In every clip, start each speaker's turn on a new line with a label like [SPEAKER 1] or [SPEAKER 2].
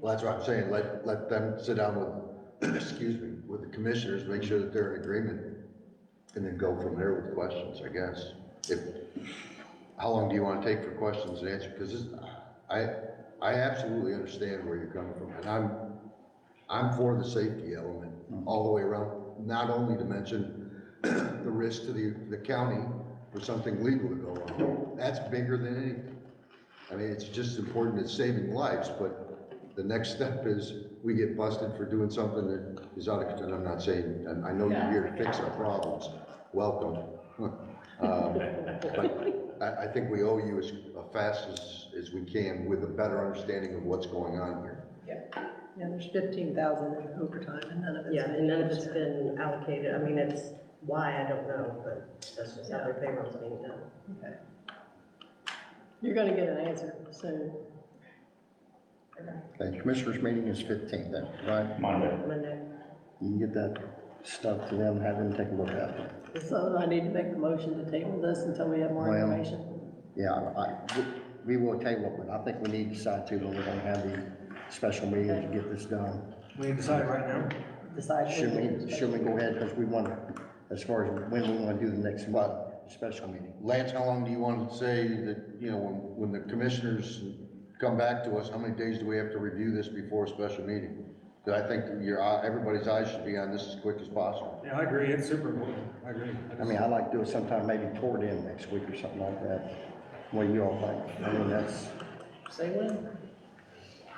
[SPEAKER 1] Well, that's what I'm saying, let, let them sit down with, excuse me, with the commissioners, make sure that they're in agreement, and then go from there with questions, I guess. If, how long do you wanna take for questions and answer, because this, I, I absolutely understand where you're coming from, and I'm, I'm for the safety element all the way around, not only to mention the risk to the, the county for something legal to go on, that's bigger than anything. I mean, it's just important, it's saving lives, but the next step is we get busted for doing something that is out of control. I'm not saying, and I know you're here to fix our problems, welcome. Um, But I, I think we owe you as uh, fast as, as we can with a better understanding of what's going on here.
[SPEAKER 2] Yeah, there's fifteen thousand in overtime and none of it's.
[SPEAKER 3] Yeah, and none of it's been allocated, I mean, it's why, I don't know, but that's just how their payroll's being done.
[SPEAKER 2] Okay. You're gonna get an answer soon.
[SPEAKER 4] Okay, commissioners meeting is fifteenth then, right?
[SPEAKER 5] Monday.
[SPEAKER 3] Monday,
[SPEAKER 4] You can get that stuff to them, have them take a look at it.
[SPEAKER 2] So I need to make the motion to table this until we have more
[SPEAKER 4] Well-
[SPEAKER 2] information.
[SPEAKER 4] Yeah, I, we- we will table it, but I think we need to decide too, when we're gonna have the special meeting to get this done.
[SPEAKER 6] We decide right now?
[SPEAKER 2] Decide.
[SPEAKER 4] Should we, should we go ahead, because we want, to as far as when we wanna do the next month, special meeting?
[SPEAKER 1] Lance, how long do you want to say that, you know, when, when the commissioners come back to us, how many days do we have to review this before a special meeting? Because I think your, eye- everybody's eyes should be on this as quick as possible.
[SPEAKER 6] Yeah, I agree, it's super important, I agree.
[SPEAKER 4] I mean, I'd like to do it sometime maybe toward the end next week or something like that. What do you all think? I mean, that's,
[SPEAKER 2] Say when?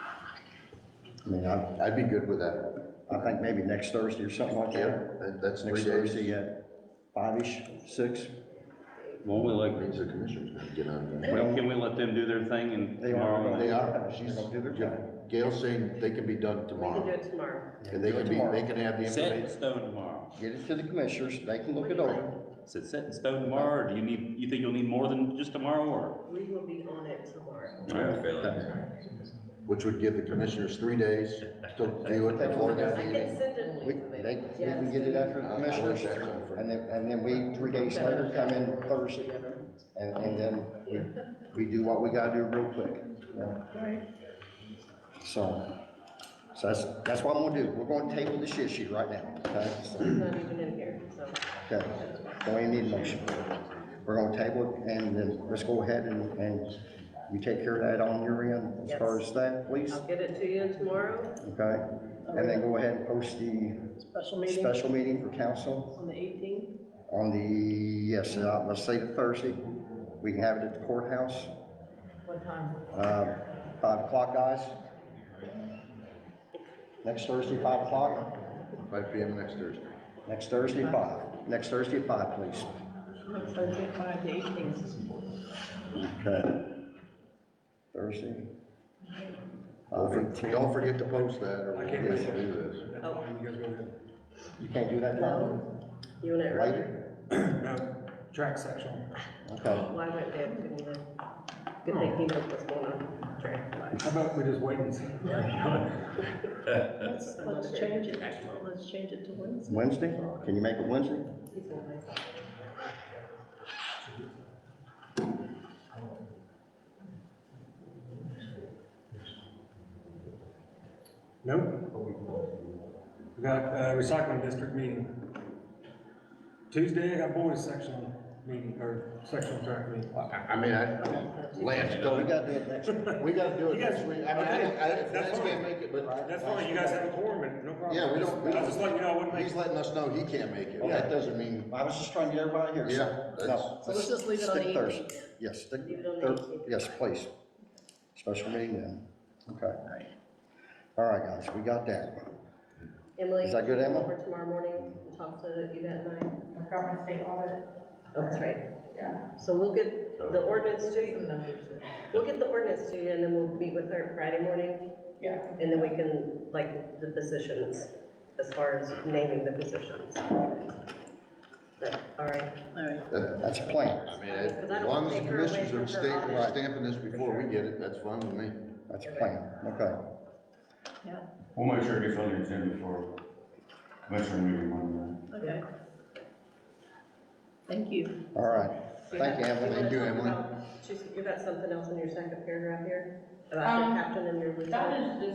[SPEAKER 4] I mean, I,
[SPEAKER 1] I'd be good with that.
[SPEAKER 4] I think maybe next Thursday or something like that.
[SPEAKER 1] Yep, that- that's three
[SPEAKER 4] Next
[SPEAKER 1] days.
[SPEAKER 4] Thursday at five-ish, six?
[SPEAKER 5] Won't we
[SPEAKER 1] That
[SPEAKER 5] like,
[SPEAKER 1] Means the commissioners gotta get on that.
[SPEAKER 4] Well-
[SPEAKER 5] can we let them do their thing and
[SPEAKER 4] They are,
[SPEAKER 5] tomorrow?
[SPEAKER 4] they
[SPEAKER 5] night?
[SPEAKER 4] are,
[SPEAKER 1] She's,
[SPEAKER 4] she's gonna do their job.
[SPEAKER 1] Gail's saying they can be done
[SPEAKER 3] we can do
[SPEAKER 1] tomorrow.
[SPEAKER 3] it tomorrow.
[SPEAKER 1] And they
[SPEAKER 4] Do it
[SPEAKER 1] can be,
[SPEAKER 4] tomorrow.
[SPEAKER 1] they can have the
[SPEAKER 5] Set in
[SPEAKER 1] information.
[SPEAKER 5] stone tomorrow.
[SPEAKER 4] Get it to the commissioners, they can look it over.
[SPEAKER 5] Is it set in stone tomorrow, or do you need, you think you'll need more than just tomorrow, or?
[SPEAKER 3] We will be on it tomorrow.
[SPEAKER 1] which would give the commissioners three days to do it before
[SPEAKER 3] I
[SPEAKER 1] their
[SPEAKER 3] can
[SPEAKER 1] meeting.
[SPEAKER 3] send it.
[SPEAKER 4] We, they, we can get it after the commissioners, and then, and then we, three days later, come in Thursday, and, and then we, we do what we gotta do real quick. you know? So, so that's, that's what I'm gonna do, we're gonna table this issue right now, okay? So,
[SPEAKER 3] It's not even in here, so.
[SPEAKER 4] Okay, so we need a motion. We're gonna table it, and then let's go ahead and, and you take care of that on your end, as far as that, please,
[SPEAKER 3] I'll get it to you tomorrow.
[SPEAKER 4] okay? And then go ahead and post the
[SPEAKER 2] Special meeting
[SPEAKER 4] special meeting for council.
[SPEAKER 2] on the eighteenth?
[SPEAKER 4] On the, yes, uh, let's say the Thursday, we can have it at the courthouse,
[SPEAKER 3] What time?
[SPEAKER 4] uh, five o'clock, guys. Next Thursday, five o'clock,
[SPEAKER 1] Five P M next Thursday.
[SPEAKER 4] next Thursday, five, next Thursday, at five, please.
[SPEAKER 2] Thursday, five to eighteenth.
[SPEAKER 4] Okay. Thursday.
[SPEAKER 1] Don't
[SPEAKER 4] Uh,
[SPEAKER 1] for- Don't forget to post that or
[SPEAKER 6] I
[SPEAKER 1] we'll
[SPEAKER 6] can't
[SPEAKER 1] get
[SPEAKER 6] miss
[SPEAKER 1] to
[SPEAKER 6] it.
[SPEAKER 1] do this.
[SPEAKER 6] That's fine, you guys go ahead.
[SPEAKER 4] You can't do that, Tom?
[SPEAKER 3] You want it earlier?
[SPEAKER 4] Later?
[SPEAKER 6] No, track section.
[SPEAKER 4] Okay,
[SPEAKER 3] Why went there? Good thing he knows what's going on. Track.
[SPEAKER 6] How about we just wait and see?
[SPEAKER 2] Let's, let's change it, let's change it to Wednesday.
[SPEAKER 4] Wednesday, can you make it Wednesday?
[SPEAKER 3] He's in my-
[SPEAKER 6] No? We got uh, recycling district meeting. Tuesday, I got boys section meeting, or sectional track meeting.
[SPEAKER 1] I, I mean, I, Lance,
[SPEAKER 4] We
[SPEAKER 1] don't,
[SPEAKER 4] gotta do it next week.
[SPEAKER 1] we gotta do it
[SPEAKER 6] You guys-
[SPEAKER 1] next week. I mean, I, didn't- I, didn't-
[SPEAKER 6] That's
[SPEAKER 1] Lance
[SPEAKER 6] fine.
[SPEAKER 1] can't make it, but
[SPEAKER 6] That's fine, you guys have a quorum, and no problem.
[SPEAKER 1] Yeah, we don't- we
[SPEAKER 6] I
[SPEAKER 1] don't-
[SPEAKER 6] was just letting you know, I wouldn't make
[SPEAKER 1] he's letting us know he can't make it. That doesn't mean,
[SPEAKER 4] I was just trying to get everybody here. so-
[SPEAKER 1] Yeah,
[SPEAKER 4] No.
[SPEAKER 1] that's-
[SPEAKER 2] So let's just leave it on
[SPEAKER 4] stick
[SPEAKER 2] the
[SPEAKER 4] Thursday. Yes, stick,
[SPEAKER 3] Leave it on
[SPEAKER 4] Thur-
[SPEAKER 3] the 18th.
[SPEAKER 4] yes, please. Special meeting then, okay. All right, guys, we got that.
[SPEAKER 3] Emily.
[SPEAKER 4] Is that good, Emma?
[SPEAKER 3] Over tomorrow morning and talk to you that night.
[SPEAKER 7] Montgomery State Audit,
[SPEAKER 3] That's right.
[SPEAKER 7] yeah.
[SPEAKER 3] So we'll get the ordinance to you. We'll get the ordinance to you and then we'll meet with her Friday morning.
[SPEAKER 7] Yeah.
[SPEAKER 3] And then we can, like, the positions, as far as naming the positions. But, All right.
[SPEAKER 2] All right.
[SPEAKER 1] that-
[SPEAKER 4] That's a plan,
[SPEAKER 1] I mean, as long as the commissioners are stamping, stamping this before we get it, that's fine with me.
[SPEAKER 4] that's a plan, okay.
[SPEAKER 8] We'll make sure it gets on your agenda for commissioner meeting Monday.
[SPEAKER 2] Okay. Thank you.
[SPEAKER 4] All right, thank you, Emily.
[SPEAKER 1] Thank you, Emily.
[SPEAKER 3] She's, you got something else in your second paragraph here about the
[SPEAKER 7] Um,
[SPEAKER 3] captain and your lieutenant?
[SPEAKER 7] That is just